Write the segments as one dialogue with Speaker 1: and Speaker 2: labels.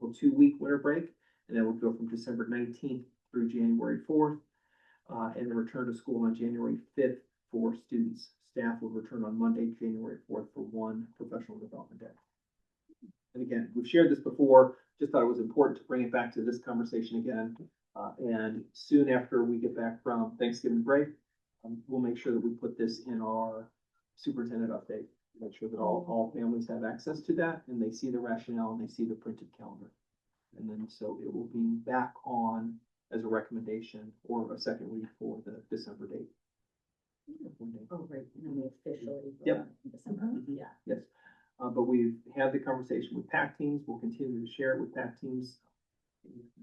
Speaker 1: typical two-week winter break, and that would go from December nineteenth through January fourth. Uh, and the return to school on January fifth for students. Staff will return on Monday, January fourth for one professional development day. And again, we've shared this before, just thought it was important to bring it back to this conversation again. Uh, and soon after we get back from Thanksgiving break, um, we'll make sure that we put this in our superintendent update. Make sure that all, all families have access to that and they see the rationale and they see the printed calendar. And then, so it will be back on as a recommendation or a second read for the December date.
Speaker 2: Oh, right, and we officially.
Speaker 1: Yep. Mm-hmm.
Speaker 2: vote in December,
Speaker 3: Mhm.
Speaker 2: yeah.
Speaker 1: Yes, uh, but we've had the conversation with PAC teams, we'll continue to share it with PAC teams.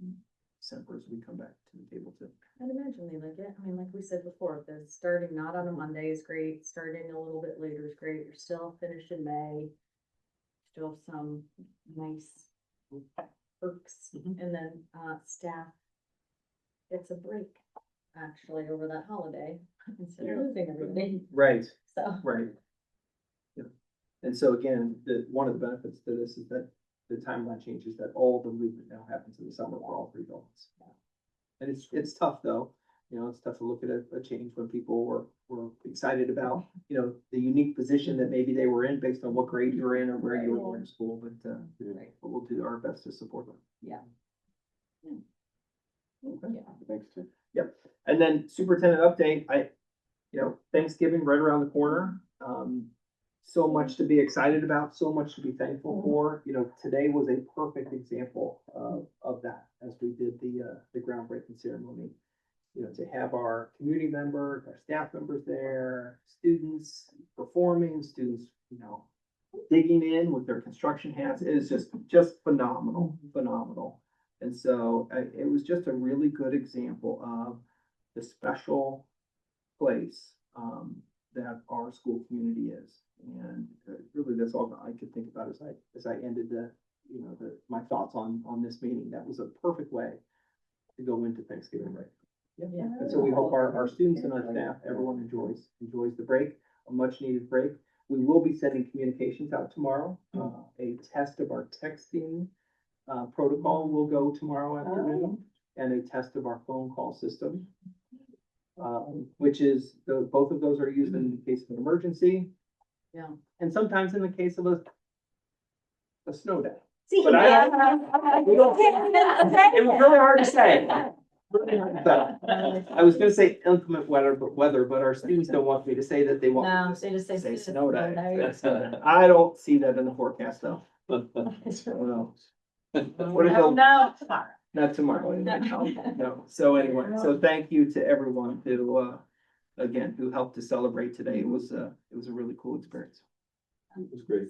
Speaker 1: in December as we come back to the table to,
Speaker 2: I'd imagine they like it. I mean, like we said before, the starting not on a Monday is great, starting a little bit later is great, you're still finished in May. Still have some nice perks,
Speaker 1: Mhm.
Speaker 2: and then, uh, staff gets a break, actually, over that holiday, instead of losing everything,
Speaker 1: right,
Speaker 2: so.
Speaker 1: right. Yeah. And so again, the, one of the benefits to this is that the timeline changes, that all the movement now happens in the summer for all three buildings. And it's, it's tough though, you know, it's tough to look at a, a change when people were, were excited about, you know, the unique position that maybe they were in based on what grade you were in or where you were in school, but, uh,
Speaker 2: Right.
Speaker 1: but we'll do our best to support them.
Speaker 2: Yeah.
Speaker 1: Yeah. Okay.
Speaker 2: Yeah.
Speaker 3: Thanks, Tim.
Speaker 1: And then superintendent update, I, you know, Thanksgiving right around the corner. Um, so much to be excited about, so much to be thankful for. You know, today was a perfect example of, of that as we did the, uh, the groundbreaking ceremony. You know, to have our community members, our staff members there, students performing, students, you know, digging in with their construction hats. It is just, just phenomenal, phenomenal. And so I, it was just a really good example of the special place um, that our school community is. And uh, really, that's all that I could think about as I as I ended the you know the my thoughts on on this meeting. That was a perfect way to go into Thanksgiving break.
Speaker 2: Yeah.
Speaker 1: And so we hope our, our students and our staff, everyone enjoys, enjoys the break, a much needed break. We will be sending communications out tomorrow. Uh, a test of our texting, uh, protocol will go tomorrow
Speaker 2: Oh.
Speaker 1: afternoon. And a test of our phone call system. Uh, which is, the, both of those are used in the case of an emergency.
Speaker 2: Yeah.
Speaker 1: And sometimes in the case of a, a snow day.
Speaker 4: But I
Speaker 1: We don't-
Speaker 4: It was really hard to say.
Speaker 1: But I was gonna say inclement weather, but weather, but our students don't want me to say that they want. me to
Speaker 2: No, they Um, just say.
Speaker 1: Say
Speaker 2: "It's
Speaker 1: snow day.
Speaker 2: That's-
Speaker 1: I don't see that in the forecast though. No. What is
Speaker 4: Oh,
Speaker 1: it?
Speaker 4: no, tomorrow.
Speaker 1: Not tomorrow. anyway.
Speaker 2: No.
Speaker 1: No, so anyway, so thank you to everyone who, uh, again, who helped to celebrate today. It was, uh, it was a really cool experience.
Speaker 3: It was great.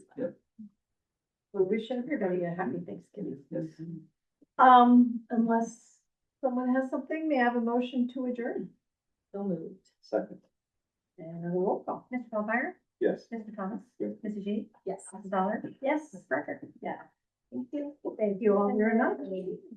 Speaker 4: We wish everybody a happy Thanksgiving.
Speaker 1: Yes.
Speaker 4: Um, unless someone has something, may I have a motion to adjourn?
Speaker 2: So moved.
Speaker 3: Second.
Speaker 4: And a roll call.
Speaker 5: Mr. Bellmeyer,
Speaker 3: Yes.
Speaker 5: Mr. Thomas,
Speaker 3: Yeah.
Speaker 5: Mrs. G,
Speaker 2: Yes.
Speaker 5: Mrs. Dollar,
Speaker 4: Yes.
Speaker 5: Mrs. Barker.
Speaker 4: Yeah.
Speaker 5: Thank you.
Speaker 4: Thank you all very much.